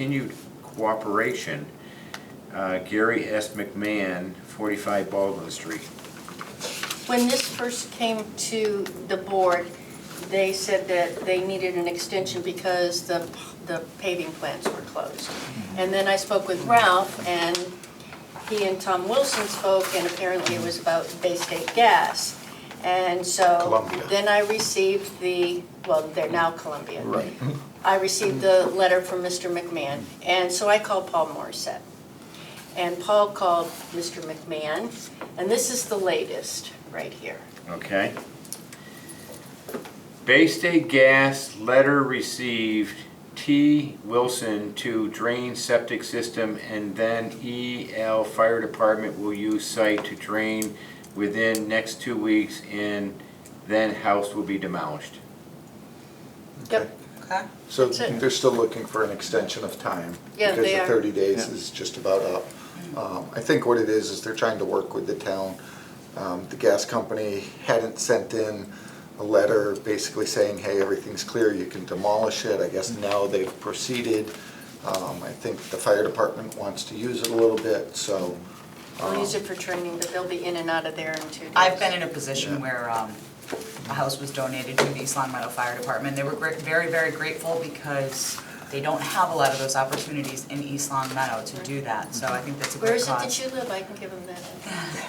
continued cooperation. Uh, Gary S. McMahon, 45 Baldwin Street. When this first came to the board, they said that they needed an extension because the, the paving plants were closed. And then I spoke with Ralph, and he and Tom Wilson spoke, and apparently it was about Bay State Gas. And so. Columbia. Then I received the, well, they're now Columbia. Right. I received the letter from Mr. McMahon, and so I called Paul Morissette. And Paul called Mr. McMahon, and this is the latest, right here. Okay. Bay State Gas letter received T. Wilson to drain septic system and then E. L. Fire Department will use site to drain within next two weeks and then house will be demolished. Yep, Okay. So That's it. they're still looking for an extension of time. Yeah, they Because are. the 30 days is just about up. Um, I think what it is, is they're trying to work with the town. Um, The gas company hadn't sent in a letter basically saying, hey, everything's clear, you can demolish it. I guess now they've proceeded. Um, I think the fire department wants to use it a little bit, so. we'll use it for training, but they'll be in and out of there in two days. I've been in a position where um, a house was donated to the East Long Meadow Fire Department. They were gr- very, very grateful because they don't have a lot of those opportunities in East Long Meadow to do that. So I think that's a Where great is it cause. that you live? I can give them that.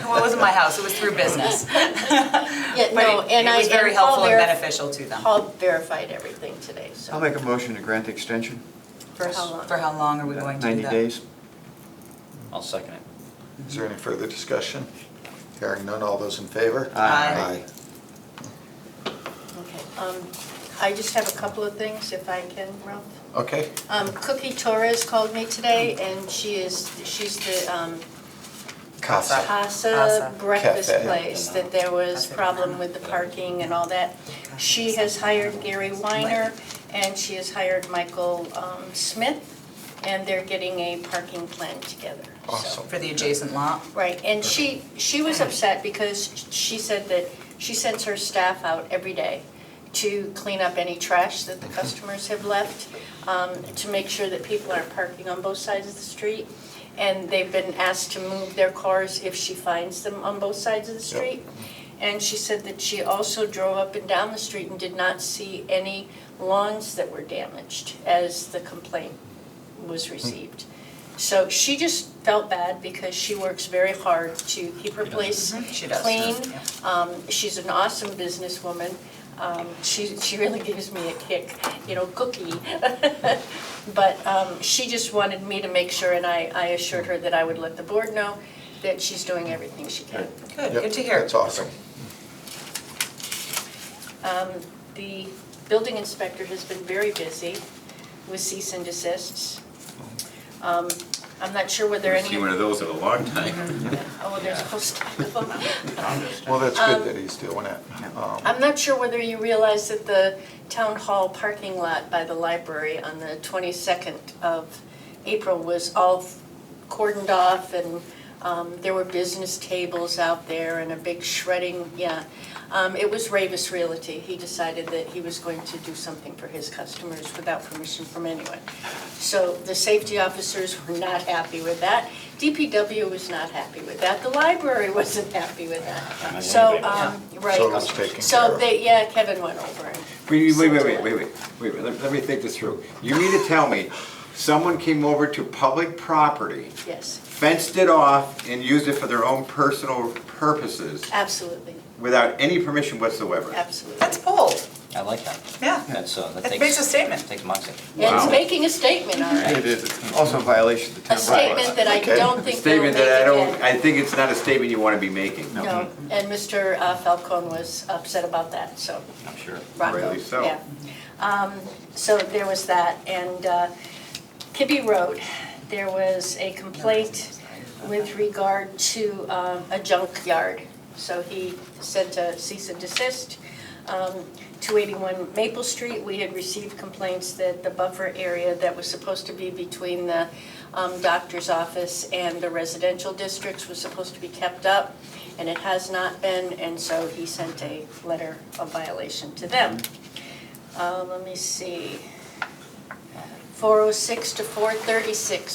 Well, it wasn't my house, it was through business. Yeah, But no, it- and I, It was very and Paul helpful and verif- beneficial to them. Paul verified everything today, so. I'll Oh make a motion to grant the extension. For how long? For how long are we going to do that? 90 days. I'll second it. Is there any further discussion? Hearing none, all those in favor? Aye. Okay, um, I just have a couple of things, if I can, Ralph. Aye. Okay, Um, Cookie Torres called me today, and she is, she's the um, CASA. Casa Casa. breakfast Cafe. place, that there was Cafe. problem with the parking and all that. She has hired Gary Weiner, and she has hired Michael um, Smith, and they're getting a parking plan together. so. Awesome. For the adjacent lot? Right, and she, she was upset because she said that she sends her staff out every day to clean up any trash that the customers have left, um, to make sure that people aren't parking on both sides of the street. And they've been asked to move their cars if she finds them on both sides of the street. And she said that she also drove up and down the street and did not see any lawns that were damaged as the complaint was Hmm. received. So she just felt bad because she works very hard to keep her place Mm-hmm. She does. clean. Yeah. Um, She's an awesome businesswoman. Um, She, she really gives me a kick, you know, cookie. But um, she just wanted me to make sure, and I, I assured her that I would let the board know that she's doing everything she can. Good, Yep, good to hear. That's awesome. Um, The building inspector has been very busy with cease and desists. Um, I'm not sure whether any. Haven't seen one of those in a long time. Oh, there's a whole stack of them. Well, that's good that he's doing it. Um, I'm not sure whether you realize that the town hall parking lot by the library on the 22nd of April was all cordoned off and um, there were business tables out there and a big shredding, yeah. Um, It was Ravis Realty. He decided that he was going to do something for his customers without permission from anyone. So the safety officers were not happy with that. DPW was not happy with that. The library wasn't happy with that. So, um, right. So it was taken care So of. they, yeah, Kevin went over and, Wait, wait, wait, wait, wait, wait, wait, wait, let let me think this through. You mean to tell me, someone came over to public property, yes, fenced it off, and used it for their own personal purposes absolutely, without any permission whatsoever? absolutely. That's bold, I like that. yeah. That's, uh, that That takes. makes a statement. Takes moxie. And It's Wow. making a statement, all right. It is also a violation of the A town statement bylaws. that I Okay. don't A think they'll make Statement that I don't, again. I think it's not a statement you want to be making. No, and Mr. uh, Falcone was upset about that, so, I'm sure. Rocco, Rightly so. yeah. Um, So there was that, and uh, Kibbe Road, there was a complaint with regard to um, a junkyard. So he sent a cease and desist. Um, 281 Maple Street, we had received complaints that the buffer area that was supposed to be between the um, doctor's office and the residential districts was supposed to be kept up, and it has not been, and so he sent a letter of violation to them. Uh, Let me see. 406 to 436